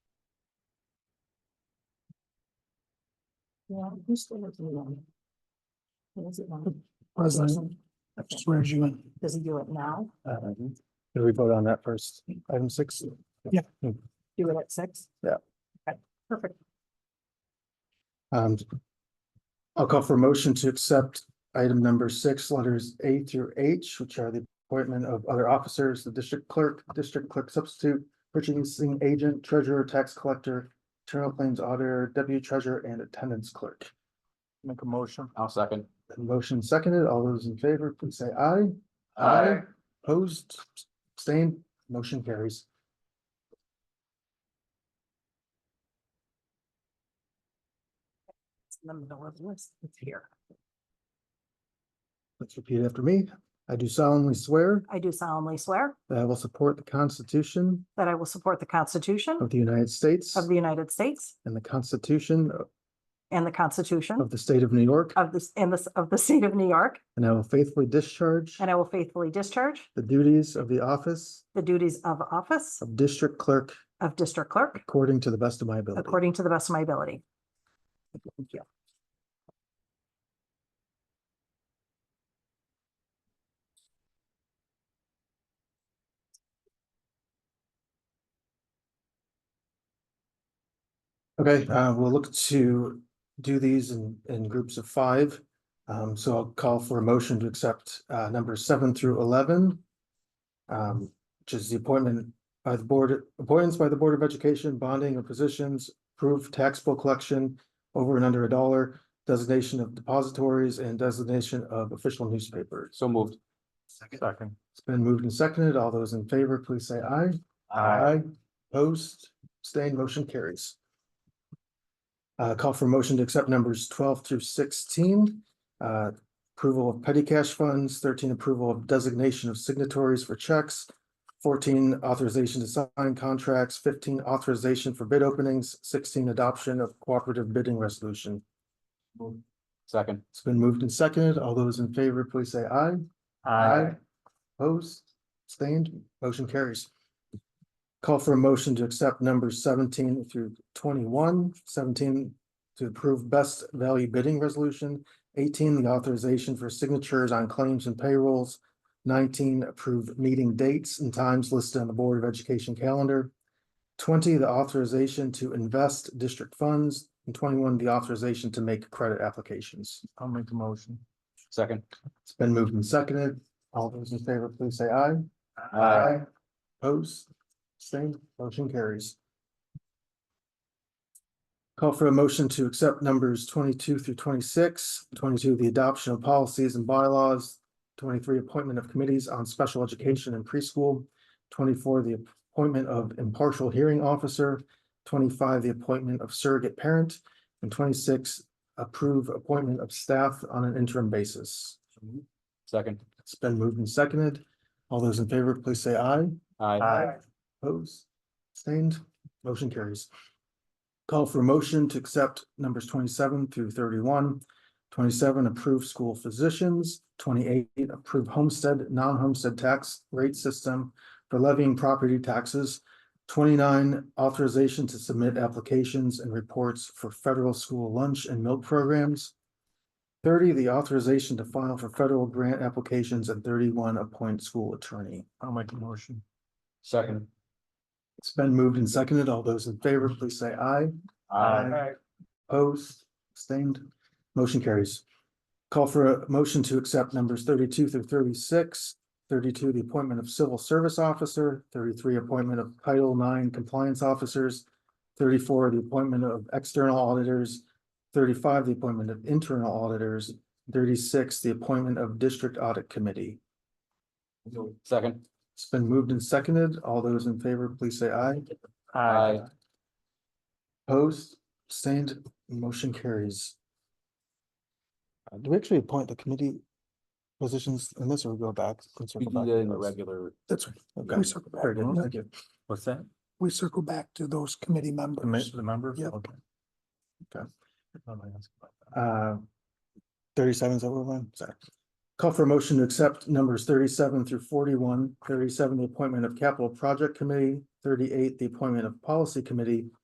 Yeah, who's still with you on? What is it on? President, I swear you in. Does he do it now? Did we vote on that first? Item six? Yeah. Do it at six? Yeah. Okay, perfect. Um, I'll call for a motion to accept item number six, letters A through H, which are the appointment of other officers, the district clerk, district clerk substitute, purchasing agent, treasurer, tax collector, internal claims auditor, deputy treasurer, and attendance clerk. Make a motion. I'll second. Motion seconded. All those in favor, please say aye. Opposed, abstained, motion carries. It's in the middle of the list. It's here. Let's repeat after me. I do solemnly swear I do solemnly swear that I will support the Constitution that I will support the Constitution of the United States of the United States and the Constitution and the Constitution of the State of New York, of this, in this, of the state of New York, and I will faithfully discharge and I will faithfully discharge the duties of the office the duties of office of District Clerk of District Clerk according to the best of my ability. according to the best of my ability. Thank you. Okay, uh, we'll look to do these in, in groups of five. Um, so I'll call for a motion to accept, uh, number seven through eleven. Um, which is the appointment by the board, appointments by the Board of Education, bonding of positions, approved taxable collection over and under a dollar, designation of depositories and designation of official newspapers. So moved. Second. Second. It's been moved and seconded. All those in favor, please say aye. Aye. Post, abstain, motion carries. Uh, call for motion to accept numbers twelve through sixteen. Uh, approval of petty cash funds, thirteen approval of designation of signatories for checks. Fourteen authorization to sign contracts, fifteen authorization for bid openings, sixteen adoption of cooperative bidding resolution. Second. It's been moved and seconded. All those in favor, please say aye. Opposed, abstained, motion carries. Call for a motion to accept numbers seventeen through twenty-one. Seventeen to approve best value bidding resolution. Eighteen, the authorization for signatures on claims and payrolls. Nineteen, approve meeting dates and times listed on the Board of Education calendar. Twenty, the authorization to invest district funds, and twenty-one, the authorization to make credit applications. I'll make the motion. Second. It's been moved and seconded. All those in favor, please say aye. Aye. Opposed, abstained, motion carries. Call for a motion to accept numbers twenty-two through 26, 22, the adoption of policies and bylaws, twenty-three, appointment of committees on special education and preschool, twenty-four, the appointment of impartial hearing officer, twenty-five, the appointment of surrogate parent, and twenty-six, approve appointment of staff on an interim basis. Second. It's been moved and seconded. All those in favor, please say aye. Aye. Opposed, abstained, motion carries. Call for a motion to accept numbers twenty-seven through thirty-one. Twenty-seven, approve school physicians. Twenty-eight, approve homestead, non-homestead tax rate system for levying property taxes. Twenty-nine, authorization to submit applications and reports for federal school lunch and milk programs. Thirty, the authorization to file for federal grant applications and thirty-one, appoint school attorney. I'll make a motion. Second. It's been moved and seconded. All those in favor, please say aye. Aye. Opposed, abstained, motion carries. Call for a motion to accept numbers thirty-two through 36, 32, the appointment of civil service officer, thirty-three, appointment of Title IX compliance officers, thirty-four, the appointment of external auditors, thirty-five, the appointment of internal auditors, thirty-six, the appointment of district audit committee. Second. It's been moved and seconded. All those in favor, please say aye. Aye. Opposed, abstained, motion carries. Uh, Do we actually appoint the committee positions in this or we go back? and We circle back do that to in the those? regular. That's right. Okay. We circle back. Very good, Mhm. thank you. What's that? We circle back to those committee members. member? Yep. Okay. Okay. Nobody asked about that. Uh, Thirty-seven is over one, sorry. Call for a motion to accept numbers thirty-seven through 41. 37, the appointment of capital project committee, thirty-eight, the appointment of policy committee,